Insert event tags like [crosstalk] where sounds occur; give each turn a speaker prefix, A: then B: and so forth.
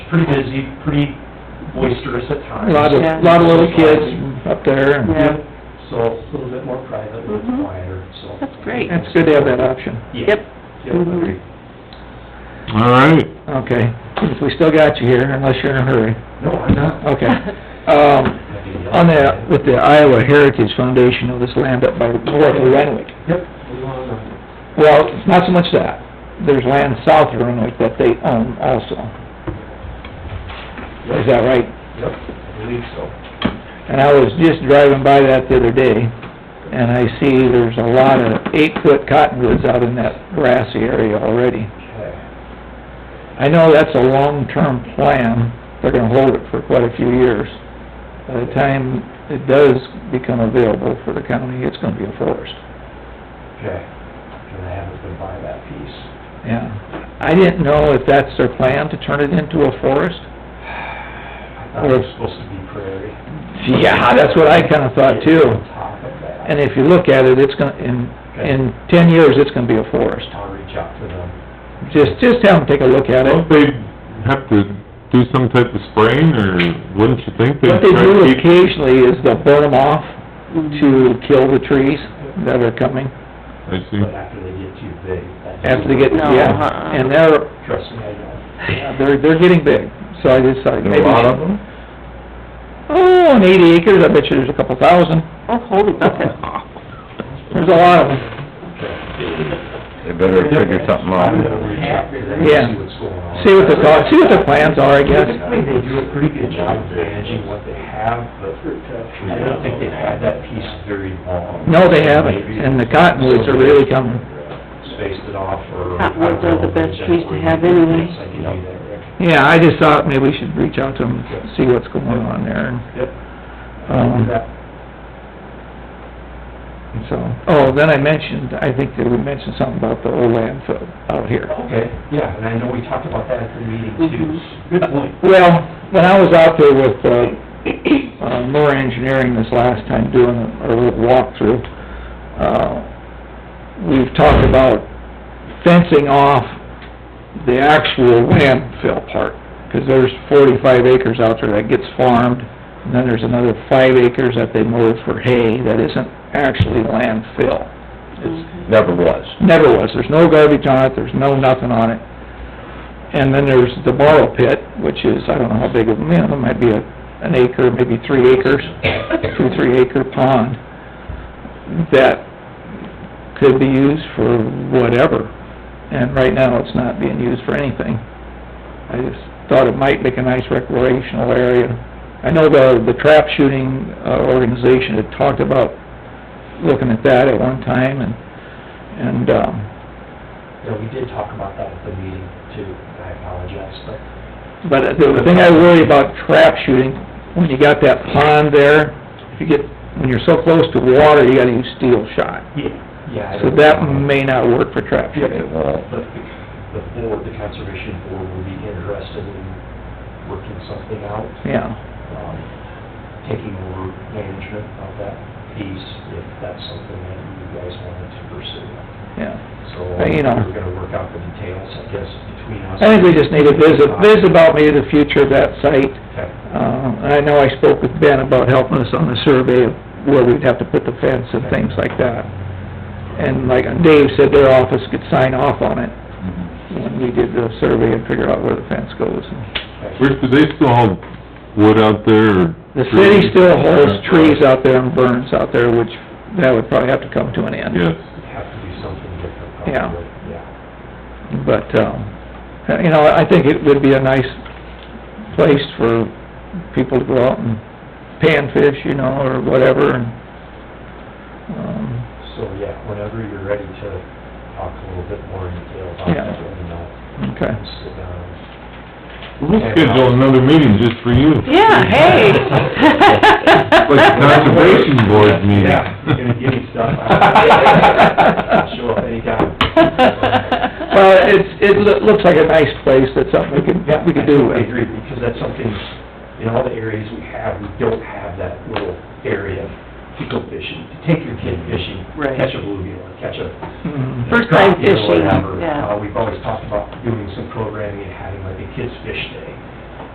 A: pretty busy, pretty boisterous at times.
B: Lot of,
C: Yeah.
B: lot of little kids up there, and
C: Yeah.
A: So a little bit more private, a little
C: Mhm.
A: quieter, so.
C: That's great.
B: it's good to have that option.
A: Yeah.
C: Yep.
A: Yep,
C: Mhm.
A: agreed.
D: All right,
B: Okay, we still got you here, unless you're in a hurry.
A: No, I'm not.
B: Okay.
C: [laughs]
B: Um, on the, with the Iowa Heritage Foundation of this land up by north of Renwick.
A: Yep, we want to,
B: Well, it's not so much that. There's land south of Renwick that they own also. Is that right?
A: yep, I believe so.
B: And I was just driving by that the other day, and I see there's a lot of eight-foot cottonwoods out in that grassy area already.
A: Okay.
B: I know that's a long-term plan, they're gonna hold it for quite a few years. By the time it does become available for the county, it's gonna be a forest,
A: Okay, and I haven't been by that piece.
B: yeah. I didn't know if that's their plan, to turn it into a forest?
A: I thought it was supposed to be prairie.
B: Yeah, Ah, that's what I kinda thought too.
A: Top of that.
B: And if you look at it, it's gonna, in, in ten years, it's gonna be a forest.
A: I'll reach out to them.
B: Just, just have them take a look at it.
D: don't they have to do some type of spraying, or wouldn't you think they'd
B: What they
D: try
B: do
D: to keep?
B: occasionally is they'll burn them off to kill the trees that are coming
D: I see.
A: But after they get too big. that's-
B: Mm. after they get,
C: No,
B: yeah.
C: uh-uh.
B: And they're,
A: Trust me, I know.
B: yeah, they're, they're getting big, so I just thought
D: There are
B: maybe...
D: a lot of them?
B: Oh, on eighty acres, I bet you there's a couple thousand.
C: Oh, holy bucket.
B: There's a lot of them.
C: [laughs]
E: They better figure something out.
A: I'm gonna reach out to them and see
B: Yeah.
A: what's going on.
B: See what the thought, see what the plans are, I guess.
A: Typically, they do a pretty good job of managing what they have, but I don't think they've had that piece very long.
B: No, they haven't, and the cottonwoods are really coming.
A: Spaced it off or.
C: Cottonwoods are the best trees to have anyway.
A: Yes, I can do that, Rick.
B: Yeah, I just thought maybe we should reach out to them, see what's going on there, and
A: Yep.
B: Um, and so... Oh, then I mentioned, I think that we mentioned something about the old landfill out here.
A: Okay, yeah, and I know we talked about that at the meeting too.
C: Mhm.
A: Good point.
B: Well, when I was out there with, uh, uh, Moore Engineering this last time doing our little walkthrough, uh, we've talked about fencing off the actual landfill part, 'cause there's forty-five acres out there that gets farmed, and then there's another five acres that they mow for hay that isn't actually landfill.
E: Never was.
B: Never was, there's no garbage on it, there's no nothing on it. And then there's the borrow pit, which is, I don't know how big of, man, it might be a, an acre, maybe three acres, two, three acre pond that could be used for whatever. And right now, it's not being used for anything. I just thought it might make a nice recreational area. I know the, the trap shooting uh, organization had talked about looking at that at one time and and, um,
A: Yeah, we did talk about that at the meeting too, and I apologize, but
B: but the thing I worry about trap shooting, when you got that pond there, if you get, when you're so close to water, you gotta use steel shot.
A: yeah. I
B: So
A: don't
B: that
A: know.
B: may not work for trap
A: Yeah,
B: shooting.
A: it won't, but the the board, the conservation board would be interested in working something out,
B: Yeah,
A: um, taking over management of that piece, if that's something that you guys wanted to pursue.
B: yeah.
A: So,
B: Uh, you know.
A: we're gonna work out the details, I guess, between us. Uh,
B: I think we just need a visit, visit about maybe the future of that site.
A: Okay,
B: Um, and I know I spoke with Ben about helping us on the survey of where we'd have to put the fence and things like that. And like Dave said, their office could sign off on it
D: Mm-hmm.
B: when we did the survey and figure out where the fence goes and
A: okay.
D: Rick, do they still have wood out there, or?
B: The city still holds
D: Yeah.
B: trees out there and burns out there, which, that would probably have to come to an end.
D: Yes,
A: Have to do something different.
B: Yeah.
A: probably. Yeah.
B: But, um, you know, I think it would be a nice place for people to go out and panfish, you know, or whatever, and, um,
A: So, yeah, whenever you're ready to talk a little bit more in detail about
B: Yeah.
A: that, let me know.
B: okay.
A: We'll sit down and
D: we'll schedule another meeting just for you.
C: Yeah, hey.
D: [laughs] Like the conservation board meeting.
A: Yeah, you're gonna give me stuff. I'll Show up anytime.
B: Well, it's, it loo- looks like a nice place, that's something we could, we could do
A: [laughs] I
B: with.
A: agree, because that's something, in all the areas we have, we don't have that little area to go fishing, to take your kid fishing,
C: Right.
A: catch a bluegill, or catch a...
B: Mhm.
C: First time
A: crappie or
C: fishing,
A: whatever.
C: yeah.
A: Uh, we've always talked about doing some programming and having like a kids' fish day.